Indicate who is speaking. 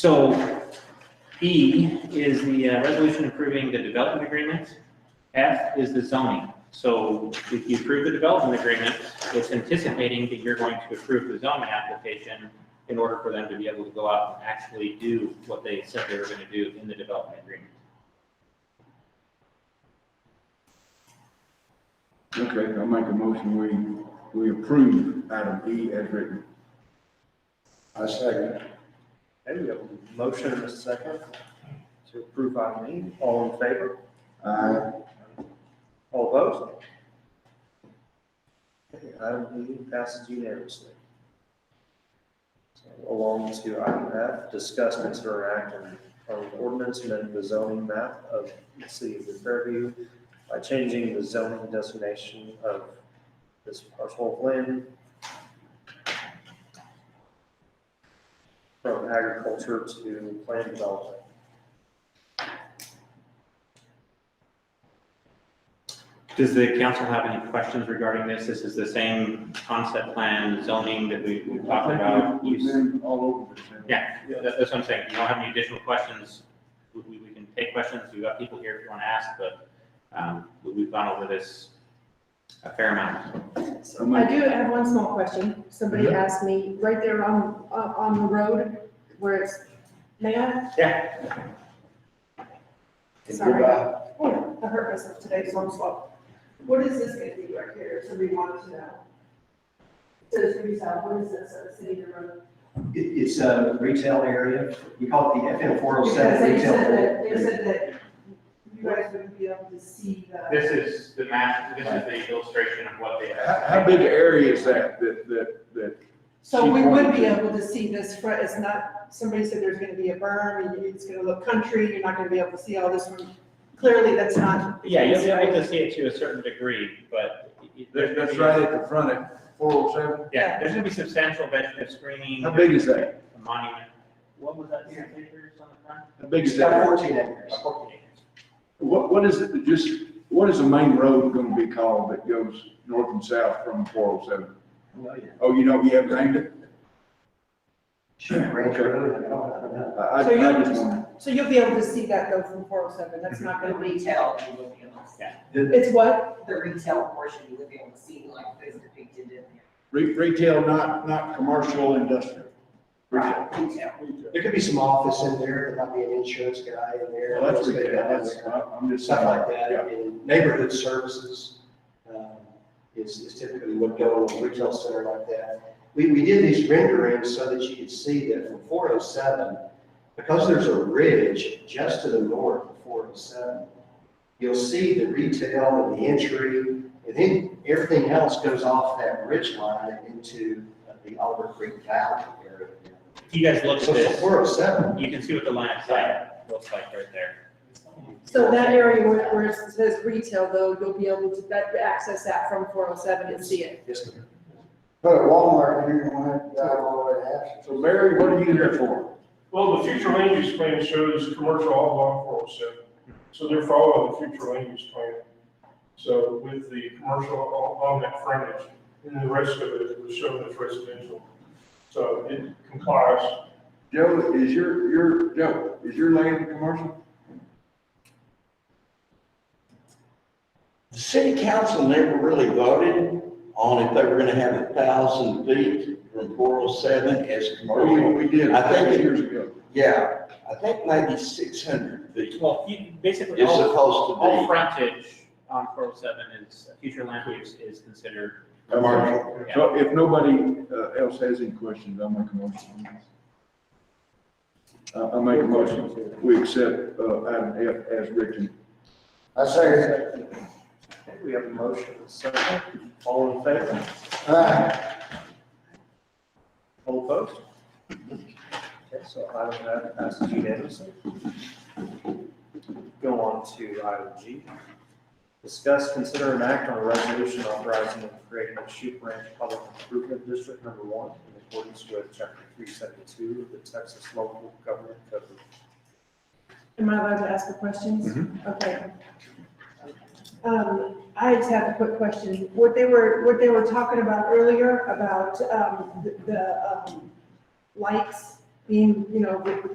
Speaker 1: So E is the uh, resolution approving the development agreement. F is the zoning. So if you approve the development agreement, it's anticipating that you're going to approve the zoning application in order for them to be able to go out and actually do what they said they were going to do in the development agreement.
Speaker 2: Okay, I'll make a motion, we, we approve item E as written.
Speaker 3: I second. Okay, we have a motion and a second to approve item E. All in favor?
Speaker 2: Aye.
Speaker 3: All opposed? Okay, Item E passes unanimously. So, Along to item F, discuss, consider act on on ordinance amending the zoning map of the city of New Fairview by changing the zoning designation of this parcel of land from agriculture to land development.
Speaker 1: Does the council have any questions regarding this? This is the same concept plan zoning that we we talked about.
Speaker 2: We've
Speaker 1: That-
Speaker 2: been all over this. haven't we?
Speaker 1: Yeah. That's what I'm saying. If you don't have any additional questions, we- we, we can take questions. We've got people here if you want to ask, but um, we- we've gone over this a fair amount.
Speaker 2: I'll
Speaker 4: I
Speaker 2: make-
Speaker 4: do have one small question. Somebody asked me, right there on, on on the road where it's, may I?
Speaker 1: Yeah.
Speaker 4: Sorry. Oh, I hurt myself today, so I'm slow. What is this gonna be right here? Somebody wanted to know. So it's gonna be south, what is this, uh, city or road?
Speaker 5: It, it's a retail area, we call it the FM four oh
Speaker 4: Because
Speaker 5: seven
Speaker 4: they
Speaker 5: retail.
Speaker 4: said
Speaker 5: area.
Speaker 4: that, they said that you guys wouldn't be able to see the,
Speaker 1: This is the map, this is the illustration of what they
Speaker 2: How, how big an area is that, that, that, that?
Speaker 4: so we would be able to see this front, it's not, somebody said there's gonna be a berm, and it's gonna look country, you're not gonna be able to see all this from, clearly that's not.
Speaker 1: Yeah, you'll be able to see it to a certain degree, but. it- it-
Speaker 2: that- That's right at the front of four oh seven?
Speaker 1: Yeah, there's going to be substantial vegetative screening.
Speaker 2: How big is that?
Speaker 1: A monument. What was that, six acres on the front?
Speaker 2: How big
Speaker 5: It's
Speaker 2: is
Speaker 5: got
Speaker 2: that?
Speaker 5: fourteen acres. Oh,
Speaker 1: About 14 acres.
Speaker 2: What, what is it, that just, what is the main road gonna be called that goes north and south from four oh seven? Oh, you know, you have named it?
Speaker 5: Shoot, Range Road, I don't know.
Speaker 2: I, I
Speaker 4: So you-
Speaker 2: I just want.
Speaker 4: So you'll be able to see that though from four oh seven, that's not
Speaker 6: The
Speaker 4: gonna be,
Speaker 6: retail, you will be able to see.
Speaker 1: Mhm.
Speaker 4: it's what?
Speaker 6: The retail portion, you will be able to see like those depicted in there.
Speaker 2: Re- Retail, not, not commercial, industrial. Retail.
Speaker 6: Right, Retail.
Speaker 5: There could be some office in there, there might be an insurance guy in there.
Speaker 2: Well, that's
Speaker 5: real estate
Speaker 2: retail,
Speaker 5: guy in
Speaker 2: that's,
Speaker 5: there,
Speaker 2: I'm just
Speaker 5: Stuff
Speaker 2: saying.
Speaker 5: like that,
Speaker 2: Yeah.
Speaker 5: and neighborhood services, um, is, is typically what go on a retail center like that. We, we did these renderings so that you could see that from four oh seven, because there's a ridge just to the north of four oh seven, you'll see the retail and the entry, and then everything else goes off that ridge line into the Oliver Creek Valley area.
Speaker 1: If you guys look at
Speaker 5: So
Speaker 1: this,
Speaker 5: four oh seven,
Speaker 1: you can see what the line of sight looks like right there.
Speaker 4: So that area where, where it says retail though, you'll be able to, that, access that from four oh seven and see it.
Speaker 5: Yes, ma'am.
Speaker 7: Put a Walmart here, and went down all the way to Ashland.
Speaker 2: So Mary, what are you here for?
Speaker 8: Well, the future land use plan shows commercial all along four oh seven, so they're following the future land use plan. So with the commercial on, on that frontage, and the rest of it was shown as residential. So it complies,
Speaker 2: Joe, is your, your, Joe, is your land commercial?
Speaker 9: The city council never really voted on if they were gonna have a thousand feet from four oh seven as
Speaker 2: Oh, We,
Speaker 9: commercial.
Speaker 2: we did,
Speaker 9: I think-
Speaker 2: years ago.
Speaker 9: Yeah, I think maybe six hundred feet
Speaker 1: Well, you, basically,
Speaker 9: is
Speaker 1: all,
Speaker 9: supposed
Speaker 1: all
Speaker 9: to
Speaker 1: frontage on four oh seven is, future land use is considered.
Speaker 9: be commercial.
Speaker 1: Yeah.
Speaker 2: So if nobody uh, else has any questions, I'll make a motion. I, I make a motion, we accept, uh, item F as written.
Speaker 7: I say,
Speaker 3: Okay, We have a motion and a second. All in favor?
Speaker 7: uh,
Speaker 3: All opposed? Okay, so item F passes unanimously. Go on to item G. Discuss, consider, and act on a resolution authorizing and creating a Shoot Ranch Public Improvement District Number One in accordance with Chapter three seventy-two of the Texas Local Government Code.
Speaker 4: Am I allowed to ask the questions? Okay. Um, I just have a quick question. What they were, what they were talking about earlier about, um, the- the, um, lights being, you know, with, with